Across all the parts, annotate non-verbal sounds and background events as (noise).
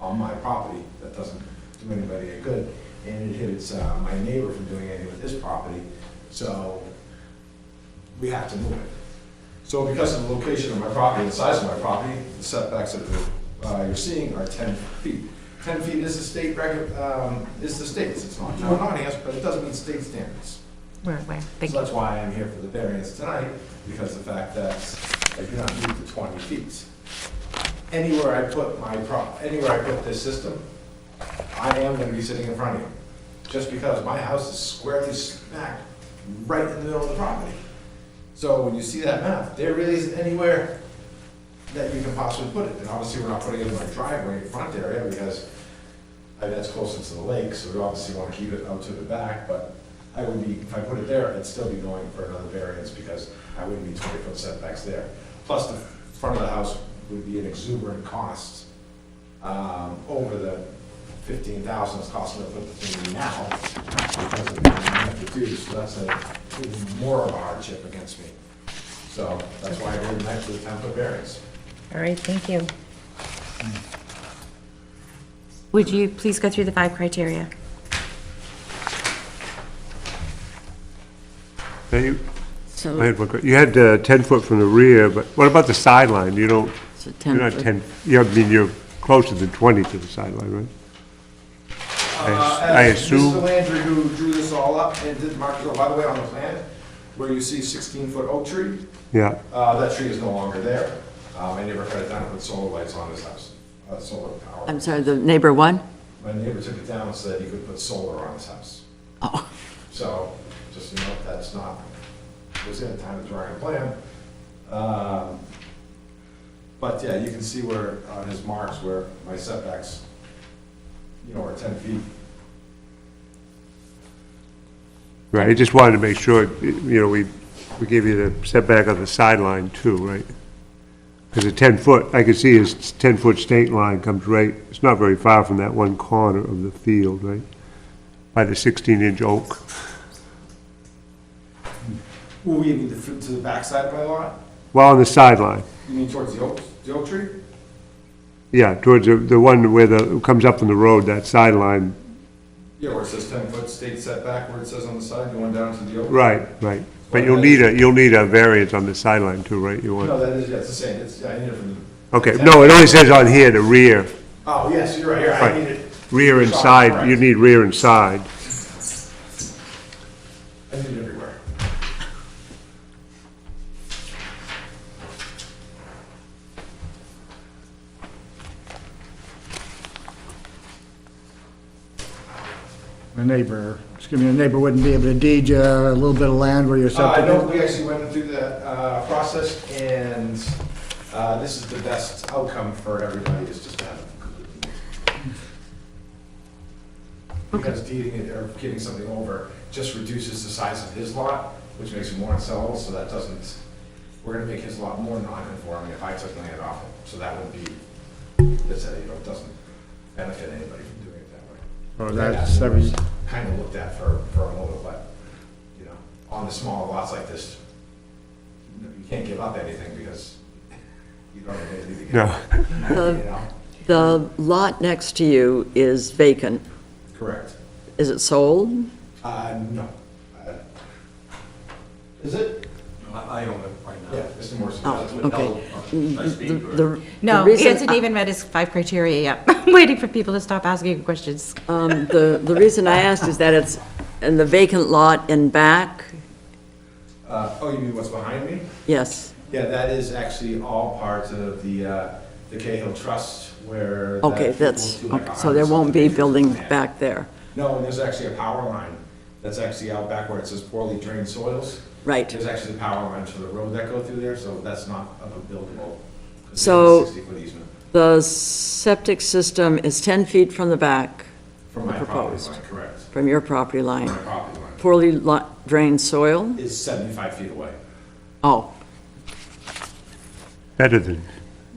on my property, that doesn't do anybody any good, and it hits uh, my neighbor from doing anything with his property, so we have to move it. So because of the location of my property, the size of my property, the setbacks that uh, you're seeing are 10 feet. 10 feet is the state record, um, is the state's, it's not town audience, but it does meet state standards. We're aware, thank So you. that's why I'm here for the variance tonight, because the fact that I do not meet the 20 feet. Anywhere I put my prop, anywhere I put this system, I am gonna be sitting in front of you. Just because my house is squarely smack right in the middle of the property. So when you see that map, there really isn't anywhere that you can possibly put it. And obviously, we're not putting it in my driveway in front area because I that's closer to the lake, so we obviously want to keep it out to the back, but I would be, if I put it there, I'd still be going for another variance because I wouldn't be twenty foot setbacks there. Plus, the front of the house would be an exuberant cost, um, over the fifteen thousand it's costing to put the thing in now. Because of the amount to do, so that's a, even more of a hardship against me. So that's why I didn't actually attempt a variance. All right, thank you. Would you please go through the five criteria? Now, you, I So, had one que- you had uh, 10 foot from the rear, but what about the sideline? You don't, so you're 10 not foot. 10, you, I mean, you're closer than 20 to the sideline, right? Uh, I as assume- Mr. Landry, who drew this all up and did mark, oh, by the way, on the plan, where you see sixteen-foot oak tree, Yeah, uh, that tree is no longer there. Um, I never cut it down and put solar lights on his house, uh, solar power. I'm sorry, the neighbor one? My neighbor took it down and said he could put solar on his house. Oh, So, just to note, that's not, it was in the time of drawing a plan. Um, But yeah, you can see where, on his marks, where my setbacks, you know, are ten feet. right, I just wanted to make sure, you know, we, we gave you the setback on the sideline too, right? Because the 10 foot, I can see his 10 foot state line comes right, it's not very far from that one corner of the field, right? By the 16 inch oak. Will we need to, fit to the backside of my lot? Well, on the sideline, You mean towards the oak, the oak tree? yeah, towards the, the one where the, comes up from the road, that sideline, Yeah, where it says ten foot state setback, where it says on the side, going down to the oak. Right, right. But you'll need a, you'll need a variance on the sideline too, right? You No, want, that is, that's the same, it's, I need it from the. okay, no, it only says on here, the rear, Oh, yes, you're right, here, I Right. need it, rear and side, you need rear and side. I need it everywhere. A neighbor, excuse me, a neighbor wouldn't be able to deed you a little bit of land where you're Uh, I know septic we actually went through that, uh, process and, uh, this is the best outcome for everybody is just to have. it. Because deeding it or giving something over just reduces the size of his lot, which makes it more unsellable, so that doesn't, we're gonna make his lot more non-conforming if I took land off him, so that would be, that's, uh, you know, it doesn't benefit anybody from doing it that way. Oh, That's that's every, kind of looked at for, for a moment, but, you know, on the smaller lots like this, you know, you can't give up anything because you don't have anything to give No. up. You Uh-huh. know? The lot next to you is vacant. Correct. Is it sold? Uh, no. Uh, Is it? I I own it right Yeah, now. Mr. Morrison. Oh, does. okay. Should I speak or- The- No, the reason it's I- even read his five criteria, yeah. (laughs) I'm waiting for people to stop asking questions. Um, The, the reason I asked is that it's in the vacant lot in back, Uh, oh, you mean what's behind me? yes. Yeah, that is actually all part of the, uh, the Cahill Trust where. that Okay, people that's, do like okay, a so there house. won't be building back there. No, and there's actually a power line that's actually out back where it says poorly drained soils. Right. There's actually the power lines for the road that go through there, so that's not of a buildable. 'cause it's a So- 60-foot easement The septic system is 10 feet from the back, From my property Proposed. line, correct. from your property line. My property line Poorly lo- drained soil? is 75 feet away. Oh, Better than,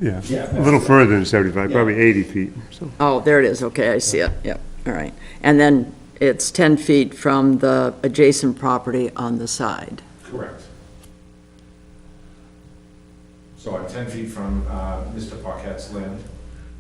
yeah, Yeah, a little further than 75, probably 80 feet, so. Oh, there it is, okay, I see it, yep, all right. And then it's 10 feet from the adjacent property on the side. Correct. So I'm 10 feet from uh, Mr. Paquette's land,